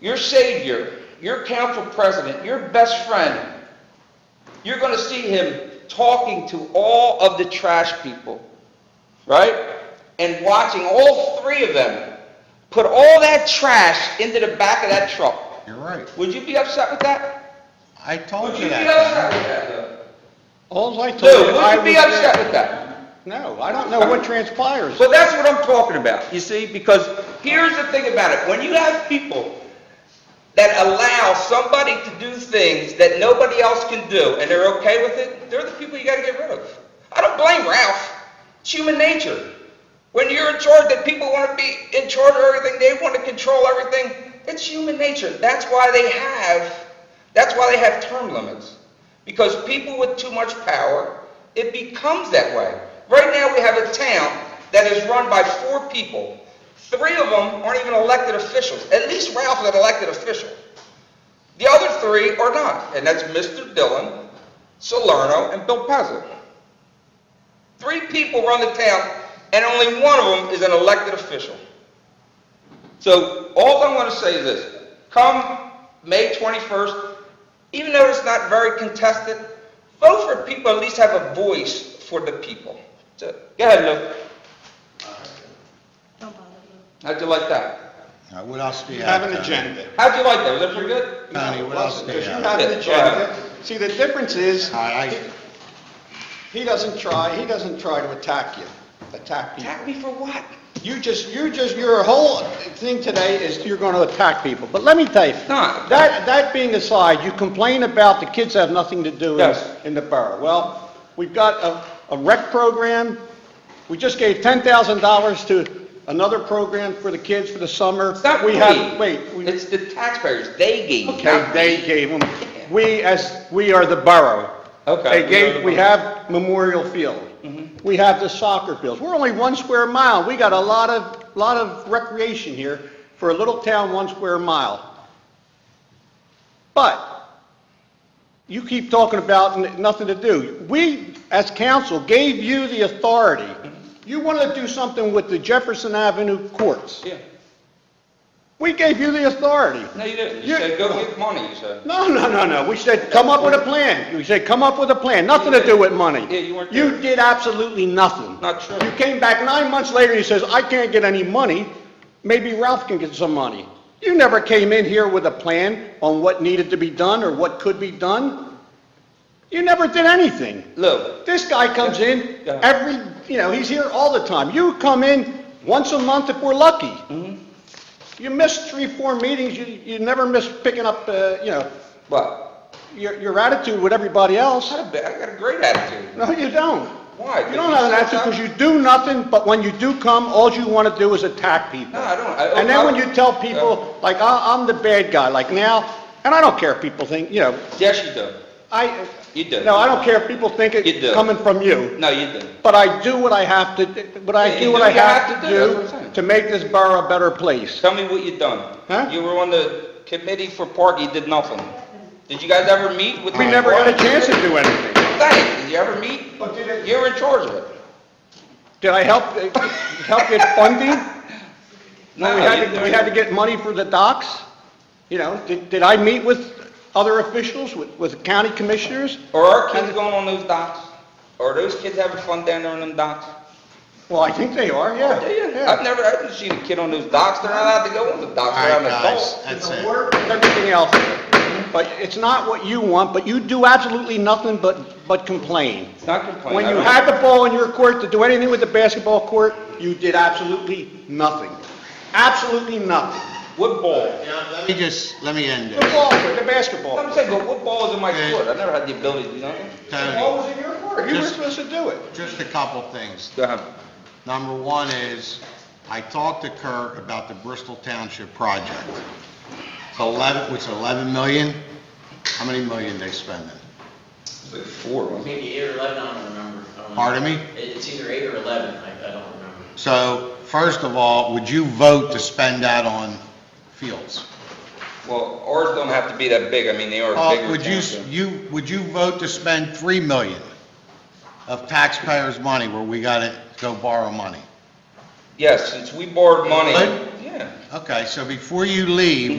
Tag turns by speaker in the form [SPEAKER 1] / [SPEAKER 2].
[SPEAKER 1] your savior, your council president, your best friend, you're going to see him talking to all of the trash people, right? And watching all three of them put all that trash into the back of that truck.
[SPEAKER 2] You're right.
[SPEAKER 1] Would you be upset with that?
[SPEAKER 2] I told
[SPEAKER 1] Would
[SPEAKER 2] you
[SPEAKER 1] you be
[SPEAKER 2] that.
[SPEAKER 1] upset with that, though?
[SPEAKER 3] All I told you,
[SPEAKER 1] Lou,
[SPEAKER 3] I
[SPEAKER 1] would you
[SPEAKER 3] was
[SPEAKER 1] be upset
[SPEAKER 3] there.
[SPEAKER 1] with that?
[SPEAKER 3] No, I don't know what transpires.
[SPEAKER 1] Well, that's what I'm talking about, you see, because here's the thing about it, when you have people that allow somebody to do things that nobody else can do, and they're okay with it, they're the people you gotta get rid of. I don't blame Ralph, it's human nature. When you're in charge, that people wanna be in charge of everything, they wanna control everything, it's human nature, that's why they have, that's why they have term limits. Because people with too much power, it becomes that way. Right now, we have a town that is run by four people. Three of them aren't even elected officials. At least Ralph is an elected official. The other three are not, and that's Mr. Dillon, Salerno, and Bill Pezza. Three people run the town, and only one of them is an elected official. So all I'm going to say is this, come May 21st, even though it's not very contested, vote for people, at least have a voice for the people. So, Go ahead, Lou. How'd you like that?
[SPEAKER 2] Now, what else do you
[SPEAKER 3] You
[SPEAKER 2] have?
[SPEAKER 3] have an
[SPEAKER 2] Tony?
[SPEAKER 3] agenda.
[SPEAKER 1] How'd you like that? Was that pretty good?
[SPEAKER 2] Tony, what else do you
[SPEAKER 3] Because you
[SPEAKER 2] have?
[SPEAKER 3] have an agenda.
[SPEAKER 1] Uh,
[SPEAKER 3] See, the difference is,
[SPEAKER 2] All right, I-
[SPEAKER 3] he doesn't try, he doesn't try to attack you, attack people.
[SPEAKER 1] Attack me for what?
[SPEAKER 3] You just, you just, your whole thing today is you're going to attack people. But let me tell you,
[SPEAKER 1] Not.
[SPEAKER 3] that, that being aside, you complain about the kids have nothing to do in,
[SPEAKER 1] Yes.
[SPEAKER 3] in the borough. Well, we've got a, a rec program. We just gave $10,000 to another program for the kids for the summer.
[SPEAKER 1] It's not
[SPEAKER 3] We
[SPEAKER 1] me.
[SPEAKER 3] have- Wait. we-
[SPEAKER 1] It's the taxpayers. They gave.
[SPEAKER 3] Okay, they gave them, we as, we are the borough.
[SPEAKER 1] Okay.
[SPEAKER 3] They gave, we have Memorial Field. We have the soccer fields. We're only one square mile. We got a lot of, lot of recreation here for a little town, one square mile. But you keep talking about n- nothing to do. We, as council, gave you the authority. You wanted to do something with the Jefferson Avenue courts.
[SPEAKER 1] Yeah.
[SPEAKER 3] We gave you the authority.
[SPEAKER 1] No, you didn't. You
[SPEAKER 3] You-
[SPEAKER 1] said, go get money, you said.
[SPEAKER 3] No, no, no, no, we said, come up with a plan. We said, come up with a plan, nothing to do with money.
[SPEAKER 1] Yeah, you weren't there.
[SPEAKER 3] did absolutely nothing.
[SPEAKER 1] Not true.
[SPEAKER 3] You came back nine months later, and you says, I can't get any money, maybe Ralph can get some money. You never came in here with a plan on what needed to be done or what could be done. You never did anything.
[SPEAKER 1] Lou,
[SPEAKER 3] This guy comes in
[SPEAKER 1] Yeah.
[SPEAKER 3] every, you know, he's here all the time. You come in once a month if we're lucky.
[SPEAKER 1] Mm-hmm.
[SPEAKER 3] You miss three, four meetings, you, you never miss picking up, uh, you know,
[SPEAKER 1] what?
[SPEAKER 3] your, your attitude with everybody else.
[SPEAKER 1] I got a great attitude.
[SPEAKER 3] No, you don't.
[SPEAKER 1] Why?
[SPEAKER 3] You don't have an attitude because you do nothing, but when you do come, all you want to do is attack people.
[SPEAKER 1] No, I don't. I-
[SPEAKER 3] And then when you tell people, like, I, I'm the bad guy, like now, and I don't care if people think, you know,
[SPEAKER 1] Yes, you do.
[SPEAKER 3] I,
[SPEAKER 1] You do.
[SPEAKER 3] no, I don't care if people think
[SPEAKER 1] You do.
[SPEAKER 3] it's coming from you.
[SPEAKER 1] No, you didn't.
[SPEAKER 3] But I do what I have to, but
[SPEAKER 1] Yeah,
[SPEAKER 3] I
[SPEAKER 1] you
[SPEAKER 3] do
[SPEAKER 1] do
[SPEAKER 3] what I
[SPEAKER 1] what you
[SPEAKER 3] have to
[SPEAKER 1] that's what I'm saying.
[SPEAKER 3] do to make this borough a better place.
[SPEAKER 1] Tell me what you done.
[SPEAKER 3] Huh?
[SPEAKER 1] You were on the committee for park, you did nothing. Did you guys ever meet with?
[SPEAKER 3] We
[SPEAKER 1] the
[SPEAKER 3] never got a
[SPEAKER 1] park?
[SPEAKER 3] chance to do anything.
[SPEAKER 1] Thanks. Did you ever meet?
[SPEAKER 3] But did it-
[SPEAKER 1] You're in charge of it.
[SPEAKER 3] Did I help, uh, help get funding? No, we had
[SPEAKER 1] you-
[SPEAKER 3] to, we had to get money for the docks. You know, did, did I meet with other officials, with, with county commissioners?
[SPEAKER 1] Are our kids going on those docks? Are those kids having fun down there on them docks?
[SPEAKER 3] Well, I think they are, yeah.
[SPEAKER 1] I've never, I haven't seen a kid on those docks. They're not allowed to go on the
[SPEAKER 2] all
[SPEAKER 1] docks. They're
[SPEAKER 2] right,
[SPEAKER 1] an
[SPEAKER 2] guys,
[SPEAKER 1] adult.
[SPEAKER 2] that's
[SPEAKER 3] It's
[SPEAKER 2] it.
[SPEAKER 3] a work with everything else, but it's not what you want, but you do absolutely nothing but, but complain.
[SPEAKER 1] It's not complaining.
[SPEAKER 3] When
[SPEAKER 1] I
[SPEAKER 3] you
[SPEAKER 1] don't-
[SPEAKER 3] had the ball in your court to do anything with the basketball court, you did absolutely nothing. Absolutely nothing.
[SPEAKER 1] What ball?
[SPEAKER 2] Let me just, let me end
[SPEAKER 3] The
[SPEAKER 2] this.
[SPEAKER 3] ball court, the basketball.
[SPEAKER 1] I'm saying, but what ball is in my
[SPEAKER 2] Okay.
[SPEAKER 1] court? I never had the ability to do nothing.
[SPEAKER 3] The
[SPEAKER 2] Tony,
[SPEAKER 3] ball was in your court, you were
[SPEAKER 2] Just-
[SPEAKER 3] supposed to do it.
[SPEAKER 2] just a couple things.
[SPEAKER 1] Go ahead.
[SPEAKER 2] Number one is, I talked to Kurt about the Bristol Township project. It's 11, what's it, 11 million? How many million they spending?
[SPEAKER 1] Four.
[SPEAKER 4] Maybe eight or eleven, I don't remember. I don't know.
[SPEAKER 2] Pardon me?
[SPEAKER 4] It- It's either eight or eleven, I, I don't remember.
[SPEAKER 2] So, first of all, would you vote to spend that on fields?
[SPEAKER 1] Well, ours don't have to be that big. I mean, they are
[SPEAKER 2] Uh,
[SPEAKER 1] bigger.
[SPEAKER 2] Would you,
[SPEAKER 1] towns,
[SPEAKER 2] you, would you vote to spend 3 million of taxpayers' money where we got to go borrow money?
[SPEAKER 1] Yes, since we borrowed money,
[SPEAKER 2] What?
[SPEAKER 1] yeah.
[SPEAKER 2] Okay, so before you leave,